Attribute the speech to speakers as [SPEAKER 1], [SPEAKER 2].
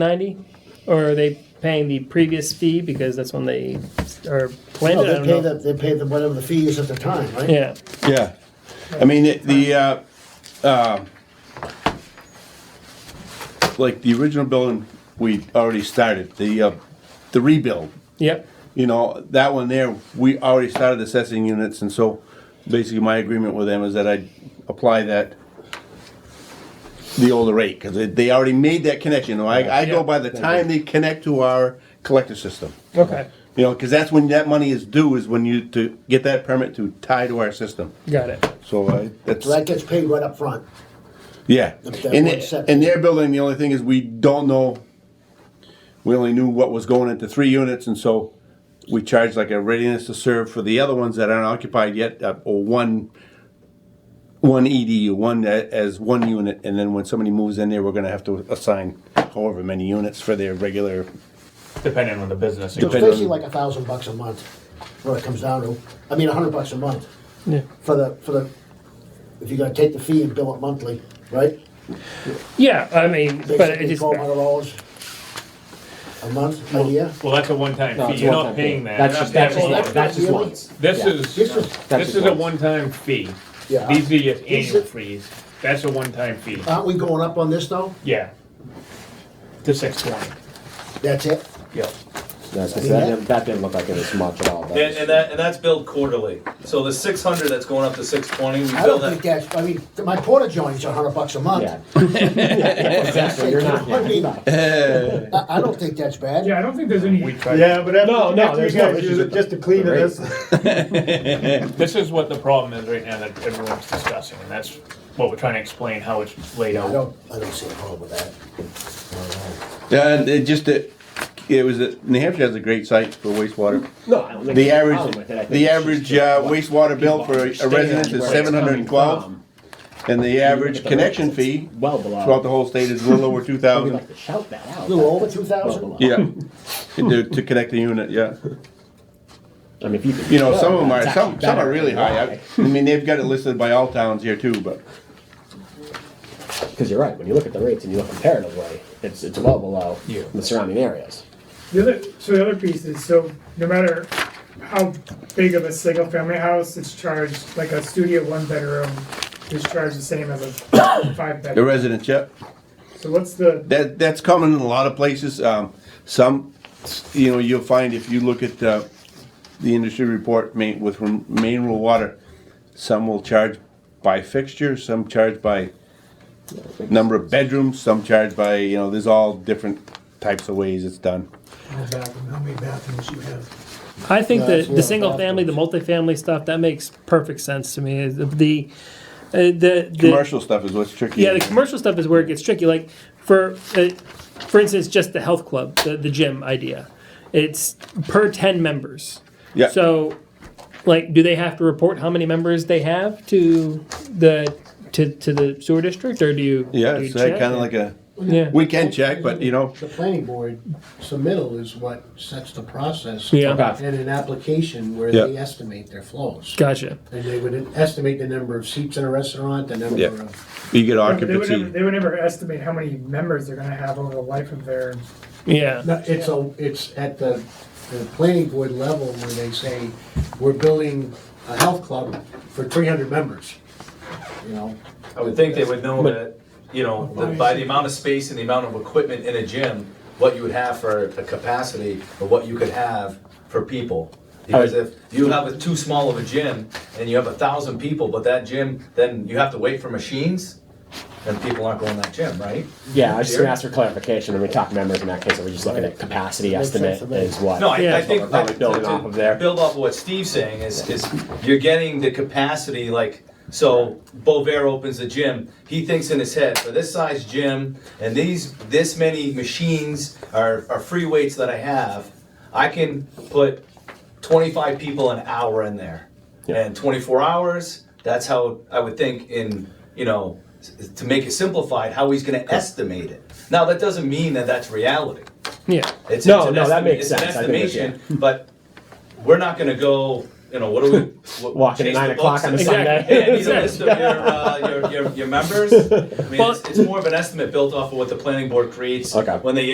[SPEAKER 1] ninety, or are they paying the previous fee because that's when they are
[SPEAKER 2] No,
[SPEAKER 1] planted? I
[SPEAKER 2] Oh, they
[SPEAKER 1] don't
[SPEAKER 2] pay
[SPEAKER 1] know.
[SPEAKER 2] the, they pay the, whatever the fee is at the time, right?
[SPEAKER 1] Yeah,
[SPEAKER 3] Yeah, I mean, it- the, uh, um like, the original building, we already started, the, uh, the rebuild,
[SPEAKER 1] yep,
[SPEAKER 3] you know, that one there, we already started assessing units, and so basically my agreement with them is that I apply that, the older rate, because they already made that connection, I, I go by the time they connect to our collector system.
[SPEAKER 1] okay,
[SPEAKER 3] You know, because that's when that money is due, is when you, to get that permit to tie to our system.
[SPEAKER 1] got it.
[SPEAKER 3] So uh, that's,
[SPEAKER 2] So that gets paid right up front.
[SPEAKER 3] yeah.
[SPEAKER 2] That
[SPEAKER 3] In,
[SPEAKER 2] one set.
[SPEAKER 3] in their building, the only thing is we don't know, we only knew what was going into three units, and so we charged like a readiness to serve for the other ones that aren't occupied yet, uh, or one, one EDU, one a- as one unit, and then when somebody moves in there, we're gonna have to assign however many units for their regular,
[SPEAKER 4] depending on the business.
[SPEAKER 2] So it's
[SPEAKER 3] Depending
[SPEAKER 2] basically
[SPEAKER 3] on-
[SPEAKER 2] like a thousand bucks a month, what it comes down to. I mean, a hundred bucks a month
[SPEAKER 1] Yeah,
[SPEAKER 2] for the, for the, if you're gonna take the fee and bill it monthly, right?
[SPEAKER 1] yeah. I mean, but it
[SPEAKER 2] Basically,
[SPEAKER 1] just
[SPEAKER 2] twelve hundred dollars a month, a year.
[SPEAKER 4] Well, that's a one-time
[SPEAKER 5] No,
[SPEAKER 4] fee,
[SPEAKER 5] it's
[SPEAKER 4] you're
[SPEAKER 5] a
[SPEAKER 4] not
[SPEAKER 5] one-time fee.
[SPEAKER 4] paying that.
[SPEAKER 5] That's
[SPEAKER 4] You're
[SPEAKER 5] just,
[SPEAKER 4] not
[SPEAKER 5] that's just,
[SPEAKER 4] paying
[SPEAKER 5] one-
[SPEAKER 4] that.
[SPEAKER 5] that's just
[SPEAKER 2] Yeah.
[SPEAKER 5] once.
[SPEAKER 4] This
[SPEAKER 2] This
[SPEAKER 5] Yeah.
[SPEAKER 4] is,
[SPEAKER 2] is,
[SPEAKER 5] That's
[SPEAKER 4] this
[SPEAKER 5] just
[SPEAKER 4] is a
[SPEAKER 5] once.
[SPEAKER 4] one-time fee.
[SPEAKER 2] Yeah.
[SPEAKER 4] These are your annual
[SPEAKER 2] it-
[SPEAKER 4] fees, that's a one-time fee,
[SPEAKER 5] Uh,
[SPEAKER 2] aren't we going up on this though?
[SPEAKER 4] yeah. To six twenty,
[SPEAKER 2] That's it?
[SPEAKER 4] yeah.
[SPEAKER 5] Yeah, 'cause that, didn't- that didn't look like it was much at all. That
[SPEAKER 6] And,
[SPEAKER 5] was-
[SPEAKER 6] and that, and that's billed quarterly. So the six hundred that's going up to six twenty, we
[SPEAKER 2] I don't
[SPEAKER 6] bill
[SPEAKER 2] think
[SPEAKER 6] that.
[SPEAKER 2] that's, I mean, my porta johnny's a hundred bucks a month.
[SPEAKER 5] Yeah. Exactly, you're not,
[SPEAKER 2] I
[SPEAKER 5] yeah.
[SPEAKER 2] mean, I, I don't think that's bad.
[SPEAKER 7] Yeah, I don't think there's any.
[SPEAKER 4] We try-
[SPEAKER 8] Yeah, but after,
[SPEAKER 1] No,
[SPEAKER 4] Oh,
[SPEAKER 1] no,
[SPEAKER 8] after
[SPEAKER 1] there's
[SPEAKER 8] you
[SPEAKER 1] no
[SPEAKER 8] guys
[SPEAKER 1] issues
[SPEAKER 8] use
[SPEAKER 1] with
[SPEAKER 8] it just to clean
[SPEAKER 5] the
[SPEAKER 8] it, that's,
[SPEAKER 4] This is what the problem is right now that everyone's discussing, and that's what we're trying to explain, how it's laid
[SPEAKER 2] I
[SPEAKER 4] out.
[SPEAKER 2] don't, I don't see a problem with that.
[SPEAKER 3] Yeah, and it just, it it was, a- New Hampshire has a great site for wastewater.
[SPEAKER 5] No, I don't think
[SPEAKER 3] The
[SPEAKER 5] there's a problem
[SPEAKER 3] average,
[SPEAKER 5] with it. I think
[SPEAKER 3] the
[SPEAKER 5] it's
[SPEAKER 3] average
[SPEAKER 5] just that
[SPEAKER 3] uh,
[SPEAKER 5] what
[SPEAKER 3] wastewater bill
[SPEAKER 5] people
[SPEAKER 3] for a
[SPEAKER 5] understand
[SPEAKER 3] resident
[SPEAKER 5] where
[SPEAKER 3] is
[SPEAKER 5] it's
[SPEAKER 3] seven hundred and twelve,
[SPEAKER 5] coming from.
[SPEAKER 3] and the average
[SPEAKER 5] Look at the
[SPEAKER 3] connection
[SPEAKER 5] rates, it's
[SPEAKER 3] fee
[SPEAKER 5] Well below.
[SPEAKER 3] throughout the whole state is a little over two
[SPEAKER 5] We'd
[SPEAKER 3] thousand.
[SPEAKER 5] like to shout that out.
[SPEAKER 2] A little over two thousand?
[SPEAKER 3] Yeah, to, to connect the unit, yeah.
[SPEAKER 5] I mean, if you. could
[SPEAKER 3] You know,
[SPEAKER 5] show
[SPEAKER 3] some
[SPEAKER 5] it,
[SPEAKER 3] of them are,
[SPEAKER 5] that's
[SPEAKER 3] some,
[SPEAKER 5] actually
[SPEAKER 3] some are
[SPEAKER 5] better
[SPEAKER 3] really
[SPEAKER 5] than
[SPEAKER 3] high. I-
[SPEAKER 5] why.
[SPEAKER 3] I mean, they've got it listed by all towns here too, but,
[SPEAKER 5] Cause you're right, when you look at the rates and you look comparatively, it's, it's well below
[SPEAKER 4] Yeah.
[SPEAKER 5] the surrounding areas.
[SPEAKER 7] The other, so the other piece is, so no matter how big of a single family house, it's charged, like a studio one bedroom is charged the same as a five
[SPEAKER 3] the
[SPEAKER 7] bedroom.
[SPEAKER 3] residents, yeah.
[SPEAKER 7] So what's the,
[SPEAKER 3] That, that's common in a lot of places. Um, some, you know, you'll find if you look at, uh, the industry report ma- with rem- main rural water, some will charge by fixture, some charge by number of bedrooms, some charge by, you know, there's all different types of ways it's done.
[SPEAKER 2] How many bathrooms you have?
[SPEAKER 1] I think
[SPEAKER 2] Yeah,
[SPEAKER 1] the
[SPEAKER 2] that's
[SPEAKER 1] the
[SPEAKER 2] what
[SPEAKER 1] single
[SPEAKER 2] I'm
[SPEAKER 1] family, the multifamily stuff, that makes perfect sense to me. The the uh, the, the
[SPEAKER 3] Commercial stuff is what's tricky.
[SPEAKER 1] Yeah, the commercial stuff is where it gets tricky. Like for uh, for instance, just the health club, the, the gym idea. It's per ten members.
[SPEAKER 3] Yeah.
[SPEAKER 1] So, like, do they have to report how many members they have to the to, to the sewer district, or do you?
[SPEAKER 3] Yeah,
[SPEAKER 1] do you
[SPEAKER 3] it's uh,
[SPEAKER 1] check?
[SPEAKER 3] kinda like a
[SPEAKER 1] yeah.
[SPEAKER 3] weekend check, but you know,
[SPEAKER 9] The planning board submittal is what sets the process.
[SPEAKER 1] Yeah.
[SPEAKER 5] Okay.
[SPEAKER 9] And an application where
[SPEAKER 3] Yeah.
[SPEAKER 9] they estimate their flows.
[SPEAKER 1] gotcha.
[SPEAKER 9] And they would estimate the number of seats in a restaurant, the number
[SPEAKER 3] Yeah.
[SPEAKER 9] of,
[SPEAKER 3] you get
[SPEAKER 7] they would never,
[SPEAKER 3] occupancy.
[SPEAKER 7] they would never estimate how many members they're gonna have over the life of their,
[SPEAKER 1] Yeah.
[SPEAKER 9] No, it's a, it's at the, the planning board level where they say, we're building a health club for three hundred members, you know?
[SPEAKER 6] I would think they would know that, you know, that by the amount of space and the amount of equipment in a gym, what you would have for a capacity or what you could have for people. Because if you have a too small of a gym and you have a thousand people, but that gym, then you have to wait for machines, then people aren't going to that gym, right?
[SPEAKER 5] Yeah, I was just gonna ask for clarification, when we talk members in that case, are we just looking at capacity
[SPEAKER 2] Makes sense
[SPEAKER 5] estimate
[SPEAKER 2] to me.
[SPEAKER 5] is what?
[SPEAKER 6] No, I, I
[SPEAKER 1] Yeah.
[SPEAKER 6] think.
[SPEAKER 5] We're probably
[SPEAKER 6] that-
[SPEAKER 5] building
[SPEAKER 6] to-
[SPEAKER 5] off
[SPEAKER 6] to
[SPEAKER 5] of there.
[SPEAKER 6] Build off of what Steve's saying is, is you're getting the capacity, like, so Bovair opens the gym, he thinks in his head, for this size gym, and these, this many machines are, are free weights that I have, I can put twenty-five people an hour in there. And twenty-four hours, that's how I would think in, you know, s- to make it simplified, how he's gonna estimate it. Now, that doesn't mean that that's reality.
[SPEAKER 1] Yeah.
[SPEAKER 6] It's,
[SPEAKER 5] No,
[SPEAKER 6] it's
[SPEAKER 5] no,
[SPEAKER 6] an
[SPEAKER 5] that
[SPEAKER 6] estimate-
[SPEAKER 5] makes
[SPEAKER 6] it's an
[SPEAKER 5] sense. I think it's-
[SPEAKER 6] estimation, but we're not going to go. You know, what do we what,
[SPEAKER 5] Walking at
[SPEAKER 6] chase the
[SPEAKER 5] nine o'clock
[SPEAKER 6] books
[SPEAKER 5] on a
[SPEAKER 6] and-
[SPEAKER 5] Sunday.
[SPEAKER 6] Hey, I need a list of your, uh, your, your, your members. I mean,
[SPEAKER 1] Well-
[SPEAKER 6] it's, it's more of an estimate built off of what the planning board creates
[SPEAKER 5] Okay.
[SPEAKER 6] when they